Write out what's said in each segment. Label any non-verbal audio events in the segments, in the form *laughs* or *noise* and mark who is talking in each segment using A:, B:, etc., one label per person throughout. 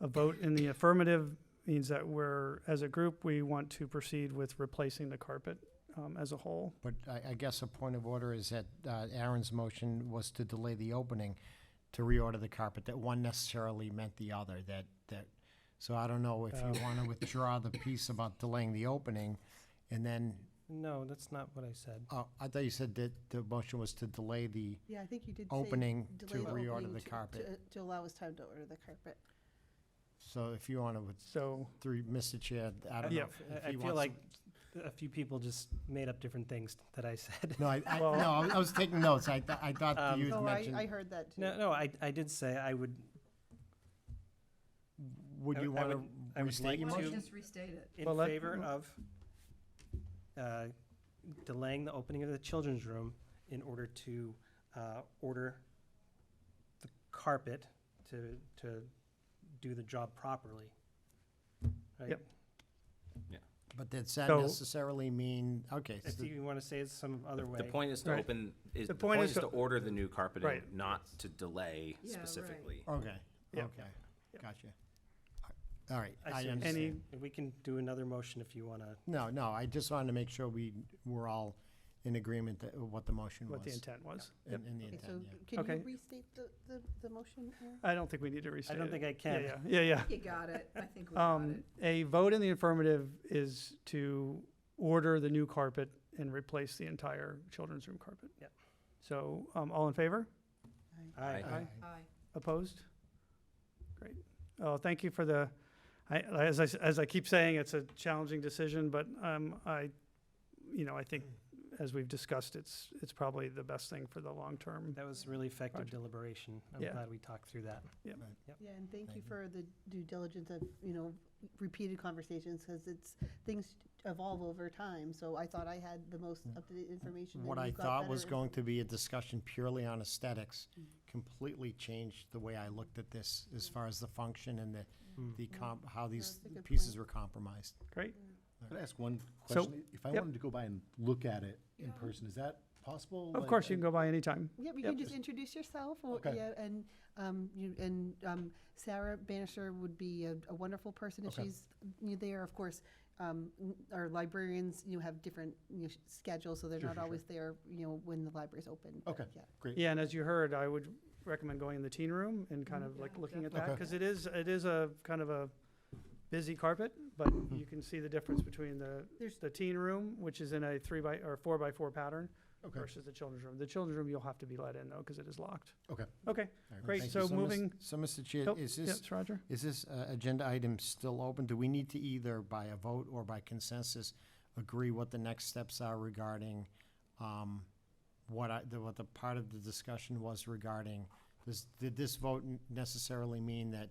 A: A vote in the affirmative means that we're, as a group, we want to proceed with replacing the carpet um, as a whole.
B: But I, I guess a point of order is that uh, Aaron's motion was to delay the opening to reorder the carpet, that one necessarily meant the other, that, that, so I don't know if you
C: Oh.
B: want to withdraw the piece about delaying the opening, and then,
C: No, that's not what I said.
B: oh, I thought you said that the motion was to delay the
D: Yeah, I think you did say.
B: opening to
D: delay the
B: reorder
D: opening
B: the
D: to-
B: carpet.
D: to- To allow us time to order the carpet.
B: So if you want to,
A: So,
B: through Mr. Chair, I don't know.
A: Yeah,
B: if-
C: I-
B: if
C: I
B: he
C: feel
B: wants
C: like
B: to-
C: a few people just made up different things that I said. *laughs*
B: No, I, I, no,
A: Well-
B: I was- I was taking notes. I, th- I thought that
C: Um,
B: you had
D: Oh, I,
B: mentioned.
D: I heard that too.
C: No, no, I, I did say I would,
B: would
C: I-
B: you
C: I
B: want
C: would- I
B: to
C: would
B: restate
C: like
B: your
C: to-
E: Why don't you
B: motion?
E: just restate it?
C: in
A: Well, let-
C: favor of uh, delaying the opening of the children's room in order to uh, order the carpet to, to do the job properly. Right?
A: Yep.
B: But does that
A: So-
B: necessarily mean, okay,
C: If
B: so
C: you want to say it some other way.
F: The point is to
A: Right.
F: open, is,
A: The
F: the
A: point
F: point
A: is
F: is
A: to-
F: to order the new carpeting,
A: Right.
F: not to delay
E: Yeah, right.
F: specifically.
B: okay,
A: Yeah.
B: okay,
A: Yeah.
B: gotcha. All right,
C: I
B: I
C: see what you're
B: understand.
A: any,
C: And We can do another motion if you want to.
B: No, no, I just wanted to make sure we were all in agreement that what the motion was.
A: what the intent was. Yep.
B: And, and the
D: Okay,
B: intent,
D: so
B: yeah.
D: can
A: Okay.
D: you restate the, the, the motion here?
A: I don't think we need to
C: I
A: restate
C: don't
A: it.
C: think I
A: Yeah,
C: can.
A: yeah, yeah,
E: You got it. I think we
A: yeah.
E: got
A: Um,
E: it.
A: a vote in the affirmative is to order the new carpet and replace the entire children's room carpet.
C: Yep.
A: So, um, all in favor?
C: Aye.
F: Aye.
B: Aye.
E: Aye.
A: Opposed? Great. Oh, thank you for the, I, as I, s- as I keep saying, it's a challenging decision, but, um, I, you know, I think as we've discussed, it's, it's probably the best thing for the long term.
C: That was really effective
A: Roger.
C: deliberation. I'm
A: Yeah.
C: glad we talked through that.
D: Yeah, and thank you
B: Thank you.
D: for the due diligence of, you know, repeated conversations, because it's, things evolve over time, so I thought I had the most up-to-date information. and
B: Mm. What I
D: you've got
B: thought
D: better Mm-hmm.
B: was
D: inf-
B: going to be a discussion purely on aesthetics completely changed the way I looked at this as far as the function and the,
C: Mm.
B: the comp, how these
D: Mm-hmm. that's a good
B: pieces were compromised.
A: Great.
G: Could I ask one
A: So-
G: question? If I
A: yep.
G: wanted to go by and look at it in
E: Yeah.
G: person, is that possible?
A: Of
G: Like,
A: course, you
G: I-
A: can go by anytime.
D: Yeah, we
A: Yep.
D: can just introduce yourself, or-
G: Okay.
D: yeah, and, um, you, and, um, Sarah Banisher would be a, a wonderful person if
G: Okay.
D: she's you know, there, of course. Um, n- our librarians, you know, have different, you know, sh- schedules, so they're
G: Sure,
D: not
G: sure, sure.
D: always there, you know, when the library's open. but
G: Okay.
D: Yeah.
A: Yeah, and as you heard, I would recommend going in the teen room and kind of like
E: Yeah,
A: looking at that,
B: definitely.
A: because it is, it is a kind of a busy carpet, but you can see the difference between the,
D: There's-
A: the teen room, which is in a three by, or four by four pattern,
G: Okay.
A: versus the children's room. The children's room, you'll have to be let in though, because it is locked.
G: Okay.
A: Okay,
G: All right.
A: great,
B: Thank you.
A: so
B: mis-
A: moving- Oh,
B: So, Mr. Chair,
A: Nope,
B: is this,
A: yes, Roger?
B: Is this uh, agenda item still open? Do we need to either by a vote or by consensus agree what the next steps are regarding um, what I, the- what the part of the discussion was regarding? Does, did this vote n- necessarily mean that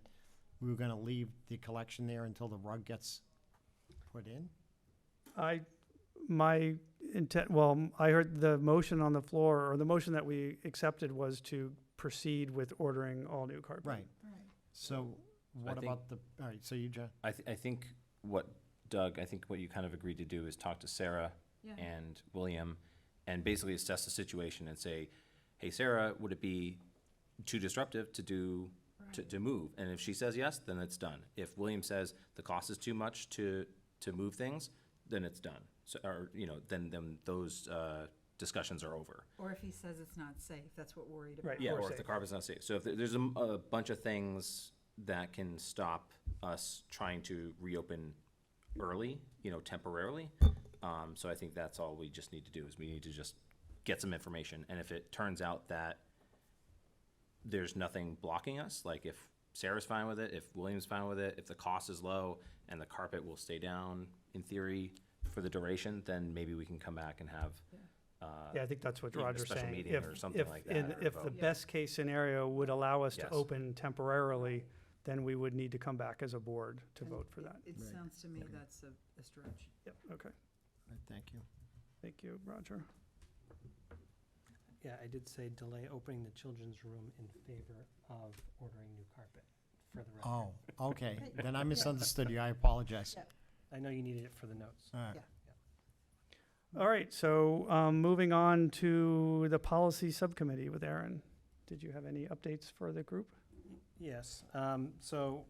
B: we were going to leave the collection there until the rug gets put in?
A: I, my intent, well, m- I heard the motion on the floor, or the motion that we accepted was to proceed with ordering all new carpet.
B: Right. So what
F: think-
B: about the, all right, so you, John?
F: I, th- I think what, Doug, I think what you kind of agreed to do is talk to Sarah
E: Yeah.
F: and William and basically assess the situation and say, hey, Sarah, would it be too disruptive to do, to, to move? And if she says yes, then it's done. If William says the cost is too much to, to move things, then it's done. So, or, you know, then, then those, uh, discussions are over.
E: Or if he says it's not safe, that's what we're worried about.
A: Right.
F: Yeah,
A: or
F: or if the
A: safe.
F: carpet's not safe. So if there- there's a, m- a bunch of things that can stop us trying to reopen early, you know, temporarily. Um, so I think that's all we just need to do is we need to just get some information. And if it turns out that there's nothing blocking us, like if Sarah's fine with it, if William's fine with it, if the cost is low and the carpet will stay down in theory for the duration, then maybe we can come back and have, uh,
A: Yeah, I think that's what
F: even a
A: Roger's
F: special
A: saying.
F: meeting
A: If-
F: or something
A: if
F: like
A: in-
F: that, or
A: If the
F: vote.
A: best-case scenario would allow us to
F: Yes.
A: open temporarily, then we would need to come back as a board to vote for that.
E: It sounds to me that's a, a stretch.
A: Yep, okay.
B: All right, Thank you.
A: Thank you, Roger.
C: Yeah, I did say delay opening the children's room in favor of ordering new carpet for the record.
B: Oh, *laughs* okay, then I misunderstood you, I apologize.
D: Yeah.
C: I know you needed it for the notes.
B: All right.
A: All right, so um, moving on to the policy subcommittee with Aaron. Did you have any updates for the group?
C: Yes, um, so